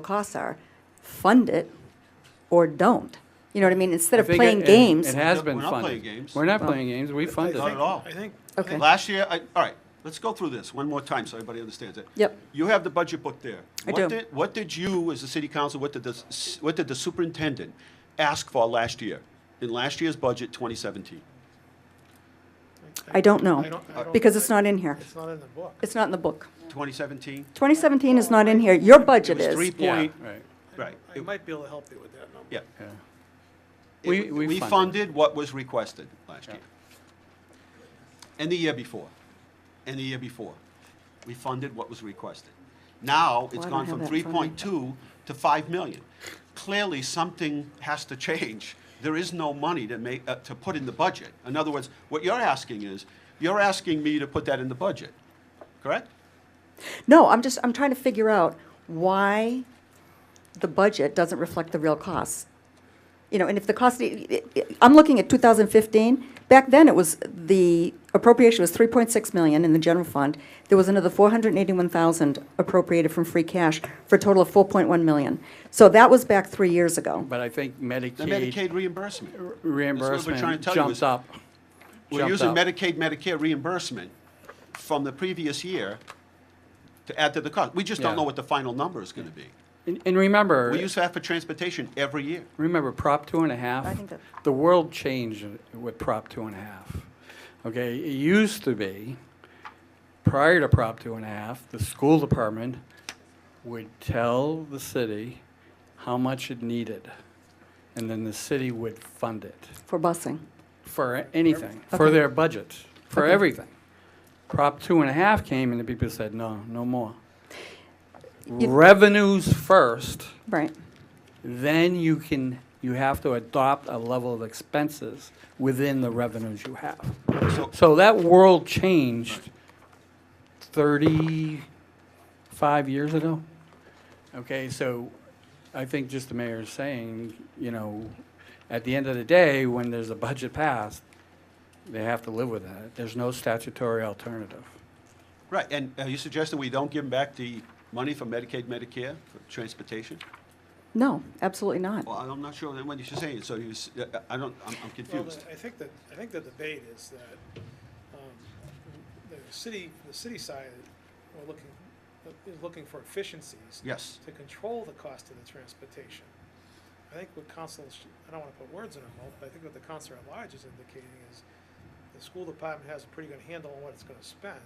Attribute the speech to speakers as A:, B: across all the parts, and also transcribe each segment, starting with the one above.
A: costs are, fund it or don't. You know what I mean? Instead of
B: They get-
A: playing
B: it-
A: games.
B: It has
C: No,
B: been
C: we're not
B: funded.
C: playing games.
B: We're not playing games. We funded
C: Not at
B: it.
C: all.
D: I think,
A: Okay.
C: Last year, I, all right, let's go through this one more time so everybody understands it.
A: Yep.
C: You have the budget book there.
A: I
C: What
A: do.
C: did- What did you, as the city council, what did the, s- what did the superintendent ask for last year? In last year's budget, 2017?
A: I don't know,
D: I don't- I don't-
A: because it's not in here.
D: it's not in the book.
A: It's not in the book.
C: 2017?
A: 2017 is not in here. Your budget
C: was
A: is.
C: three-
B: Yeah,
C: Point-
B: right.
C: Right.
D: I might be able to help you with that number.
C: Yeah.
B: Yeah.
C: It-
B: We- we
C: We
B: funded.
C: funded what was requested last
B: Yeah.
C: year. And the year before. And the year before. We funded what was requested. Now,
A: Well,
C: it's
A: I don't
C: gone
A: have
C: from
A: that
C: three
A: in front of me.
C: point two to five million. Clearly, something has to change. There is no money to make, uh, to put in the budget. In other words, what you're asking is, you're asking me to put that in the budget, correct?
A: No, I'm just, I'm trying to figure out why the budget doesn't reflect the real costs. You know, and if the cost, i- i- I'm looking at 2015, back then it was, the appropriation was 3.6 million in the general fund. There was another 481,000 appropriated from free cash for a total of 4.1 million. So that was back three years ago.
B: But I think
C: The
B: Medicaid
C: Medicaid reimbursement. That's what we're trying
B: reimbursement
C: to tell you
B: jumped
C: is-
B: up.
C: We're
B: Jumped
C: using
B: up.
C: Medicaid, Medicare reimbursement from the previous year to add to the cost. We just don't
B: Yeah.
C: know what the final number is gonna be.
B: And- And remember,
C: We use that for transportation every year.
B: remember Prop two and a half?
A: I think that-
B: The world changed with Prop two and a half. Okay, it used to be, prior to Prop two and a half, the school department would tell the city how much it needed. And then the city would fund it.
A: For busing.
B: for anything, for
A: Okay.
B: their budget, for
A: Okay.
B: everything. Prop two and a half came and the people said, no, no more.
A: You-
B: Revenues first,
A: Right.
B: then you can, you have to adopt a level of expenses within the revenues you have.
C: So-
B: So that world changed thirty-five years ago. Okay, so I think just the mayor is saying, you know, at the end of the day, when there's a budget passed, they have to live with that. There's no statutory alternative.
C: Right, and are you suggesting we don't give them back the money for Medicaid, Medicare, for transportation?
A: No, absolutely not.
C: Well, I'm not sure what you're saying, so you, s- I don't, I'm I'm
D: Well,
C: confused.
D: the- I think that, I think the debate is that um, the city, the city side are looking, is looking for efficiencies
C: Yes.
D: to control the cost of the transportation. I think what council, sh- I don't want to put words in her mouth, but I think what the council at large is indicating is the school department has a pretty good handle on what it's going to spend.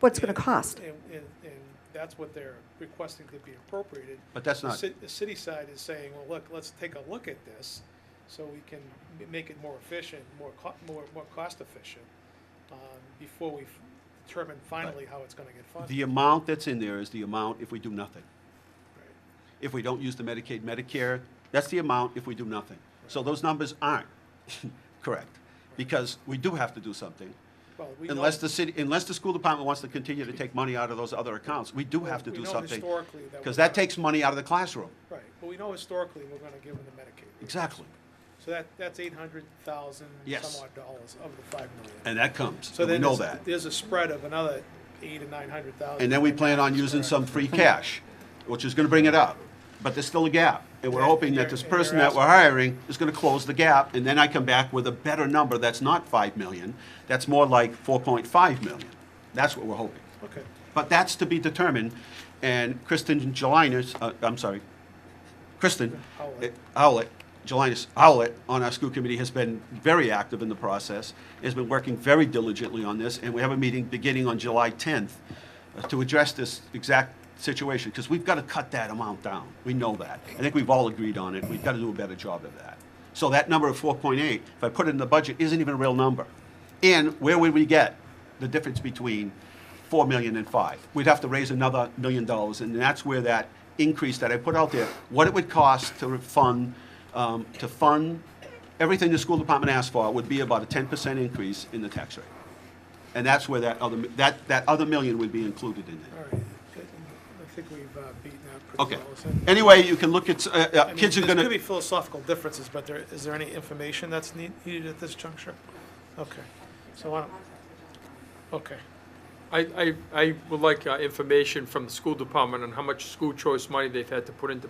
A: What's going to
D: And-
A: cost?
D: And, and, and that's what they're requesting to be appropriated.
C: But that's
D: The
C: not-
D: ci- The city side is saying, well, look, let's take a look at this so we can m- make it more efficient, more co- more, more cost efficient, um, before we f- determine finally how it's gonna get funded.
C: The amount that's in there is the amount if we do nothing.
D: Right.
C: If we don't use the Medicaid, Medicare, that's the amount if we do nothing. So those numbers aren't correct, because we do have to do something.
D: Well, we know-
C: Unless the city, unless the school department wants to continue to take money out of those other accounts, we do
D: Well,
C: have to
D: we
C: do
D: know
C: something.
D: historically that
C: Because
D: we're
C: that
D: not-
C: takes money out of the classroom.
D: Right, but we know historically, we're gonna give them the Medicaid. rate.
C: Exactly.
D: So that, that's eight hundred thousand
C: Yes.
D: some odd dollars of the five million.
C: And that comes,
D: So
C: and we
D: then
C: know
D: there's-
C: that.
D: There's a spread of another eight to nine hundred thousand.
C: And then we plan on using some free cash, which is gonna bring it up. But there's still a gap. And we're hoping that this
D: And you're- and
C: person
D: you're
C: that we're hiring is gonna close the gap, and then I come back with a better number that's not five million, that's more like four point five million. That's what we're hoping.
D: Okay.
C: But that's to be determined, and Kristen Gelinas, uh, I'm sorry, Kristen
D: Howlett.
C: uh, Howlett, Gelinas Howlett on our school committee has been very active in the process, has been working very diligently on this, and we have a meeting beginning on July 10th uh, to address this exact situation, because we've got to cut that amount down. We know that. I think we've all agreed on it. We've got to do a better job of that. So that number of 4.8, if I put it in the budget, isn't even a real number. And where would we get the difference between 4 million and 5. We'd have to raise another million dollars, and that's where that increase that I put out there, what it would cost to fund, um, to fund everything the school department asked for would be about a 10% increase in the tax rate. And that's where that other, that, that other million would be included in
D: All
C: there.
D: right, I think we've uh, beaten that
C: Okay.
D: pretty well. Is that-
C: Anyway, you can look at, uh,
D: I
C: uh,
D: mean,
C: kids are
D: There could be
C: gonna,
D: philosophical differences, but there, is there any information that's need- needed at this juncture? Okay, so why don't, okay.
E: I, I, I would like uh, information from the school department on how much school choice money they've had to put into